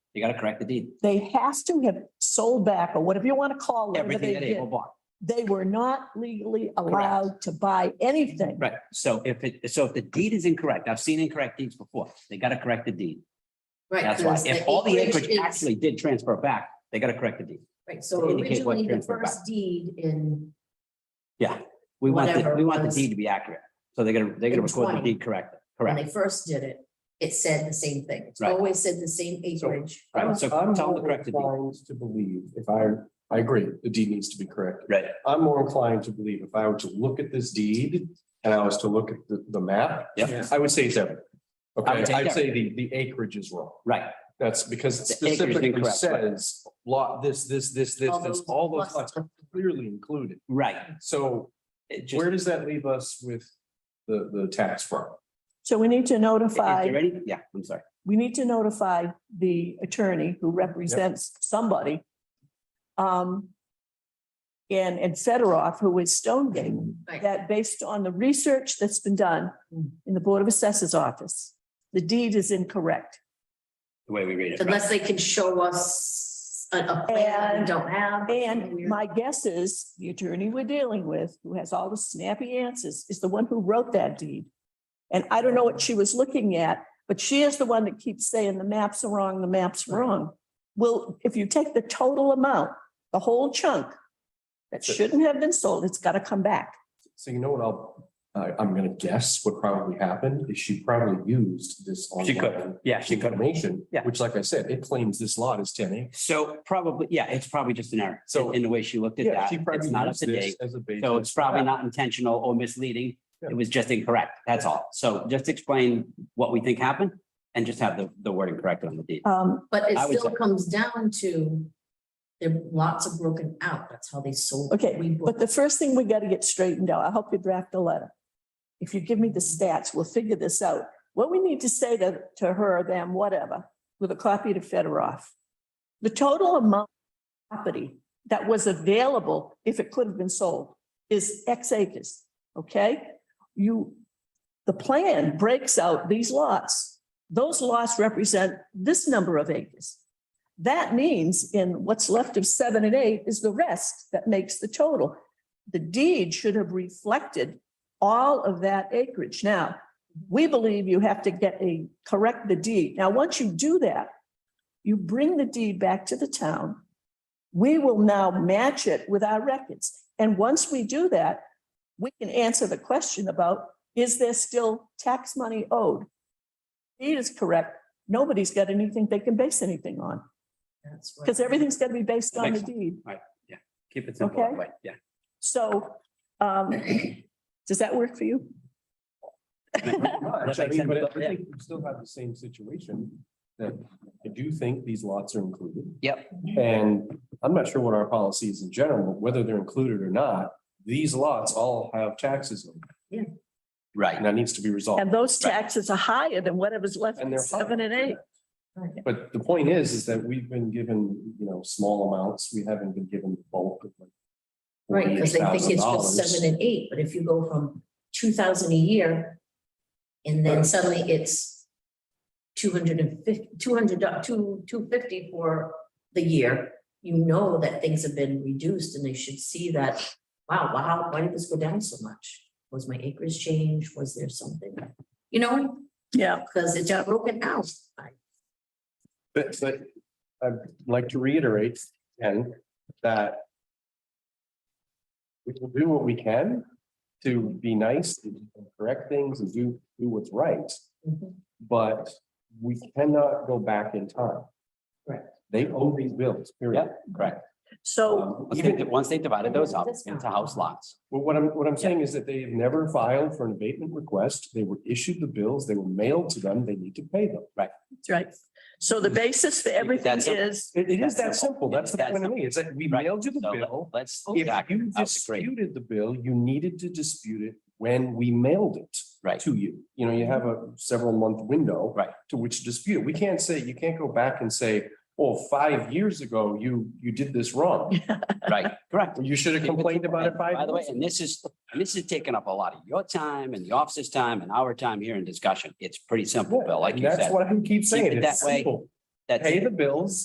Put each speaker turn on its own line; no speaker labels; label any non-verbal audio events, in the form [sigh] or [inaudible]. You gotta correct the deed.
They has to have sold back or whatever you want to call it.
Everything
They,
that Abel
did.
bought.
they were not legally allowed to buy anything.
Right. So if it, so if the deed is incorrect, I've seen incorrect deeds before. They gotta correct the deed.
Right.
That's why.
because
If all the acreage
is-
actually did transfer back, they gotta correct the deed.
Right, so
to indicate what
originally the
transferred back.
first deed in,
We want, the
Whatever
we want the
was-
deed to be accurate. So they're gonna, they're gonna
In
record the
20.
deed correct,
when
correct.
they first did it, it said the same thing. It's
Right.
always said the same acreage.
Right, Uh, so
I'm
tell them to
more
correct the deed.
inclined to believe if I, I agree, the deed needs to be corrected.
Right,
I'm more inclined to believe if I were to look at this deed and I was to look at the, the map.
Yeah.
I would say it's evident.
I would
Okay,
take
I'd say the, the acreage is wrong.
right.
That's because it
The acreage is
specifically
incorrect, right.
says lot, this, this, this, this,
All
this,
those
all those
plus-
lots are clearly included.
Right.
So
It just,
where does that leave us with the, the tax firm?
So we need to
is there
notify,
any, yeah, I'm sorry.
we need to notify the attorney who represents somebody. Um. And, and Fedorov, who is Stonegate,
Right.
that based on the research that's been done
Hmm.
in the Board of Assessors Office, the deed is incorrect.
The way we read it. right.
Unless they can show us a, a plan that we
And-
don't have.
And
We're-
my guess is the attorney we're dealing with, who has all the snappy answers, is the one who wrote that deed. And I don't know what she was looking at, but she is the one that keeps saying the maps are wrong, the map's wrong. Well, if you take the total amount, the whole chunk that shouldn't have been sold, it's got to come back.
So you know what I'll, I, I'm gonna guess what probably happened is she probably used this.
She could,
online
yeah, she could.
Information,
Yeah.
which like I said, it claims this lot is ten acres.
So probably, yeah, it's probably just an error.
So-
So in the way she looked at
Yeah,
that,
she probably
it's not up
used
to
this
date.
as a basis.
So it's probably not intentional or misleading. It
Yeah.
was just incorrect. That's all. So just explain what we think happened and just have the, the wording correct on the deed.
Um,
But it
I would
still
say-
comes down to, there lots are broken out. That's how they sold.
Okay,
We
but the first thing we got to get straightened out, I hope you draft a letter. If you give me the stats, we'll figure this out. What we need to say to, to her, them, whatever, with a copy to Fedorov. The total amount of property that was available, if it could have been sold, is X acres, okay? You, the plan breaks out these lots. Those lots represent this number of acres. That means in what's left of seven and eight is the rest that makes the total. The deed should have reflected all of that acreage. Now, we believe you have to get a, correct the deed. Now, once you do that, you bring the deed back to the town. We will now match it with our records. And once we do that, we can answer the question about, is there still tax money owed? Deed is correct. Nobody's got anything they can base anything on.
That's right.
Because everything's gonna be based on the
Makes sense.
deed.
Keep it simple, that
Okay.
way. [laughs] yeah.
So, um, does that work for you?
Much, I
makes
mean, But
sense.
I think we still have the same situation that I do think these lots are included.
Yep.
And I'm not sure what our policy is in general, but whether they're included or not, these lots all have taxes on them,
Right.
and that needs to be resolved.
And those taxes are higher than whatever's left
And
in
they're
seven and eight.
But the point is, is that we've been given, you know, small amounts. We haven't been given the bulk of like.
Right, because they think it's just
$48,000.
seven and eight, but if you go from two thousand a year. And then suddenly it's two hundred and fifty, two hundred, two, two fifty for the year. You know that things have been reduced and they should see that, wow, wow, why did this go down so much? Was my acres changed? Was there something? You know,
Yeah,
because it's broken out.
But, but I'd like to reiterate, and that we will do what we can to be nice and correct things and do, do what's right, but we cannot go back in time.
Correct.
They owe these bills, period.
Correct.
so,
Um,
Once
even-
they- Once they divided those up into house lots.
Well, what I'm, what I'm saying is that they have never filed for an abatement request. They were issued the bills, they were mailed to them, they need to pay them.
that's right. So the basis for everything
That's it.
is,
It, it is
That's
that
simple.
simple. That's the
That's
point of me, is that we
Right.
mailed you the
So let-
bill.
let's.
If
exactly.
you
Oh, I would agree.
disputed the bill, you needed to dispute it when we mailed it.
Right.
To you. You know, you have a several month window.
Right.
To which to dispute. it. We can't say, you can't go back and say, oh, five years ago, you, you did this wrong.
Right, [laughs] correct.
You should have [laughs] complained about it five.
By the way,
years ago.
and this is, and this is taking up a lot of your time and the office's time and our time here in discussion. It's pretty simple, Bill, like
And
you
That's
said.
what I keep saying.
it
It's
that way.
simple.
that's.
pay the bills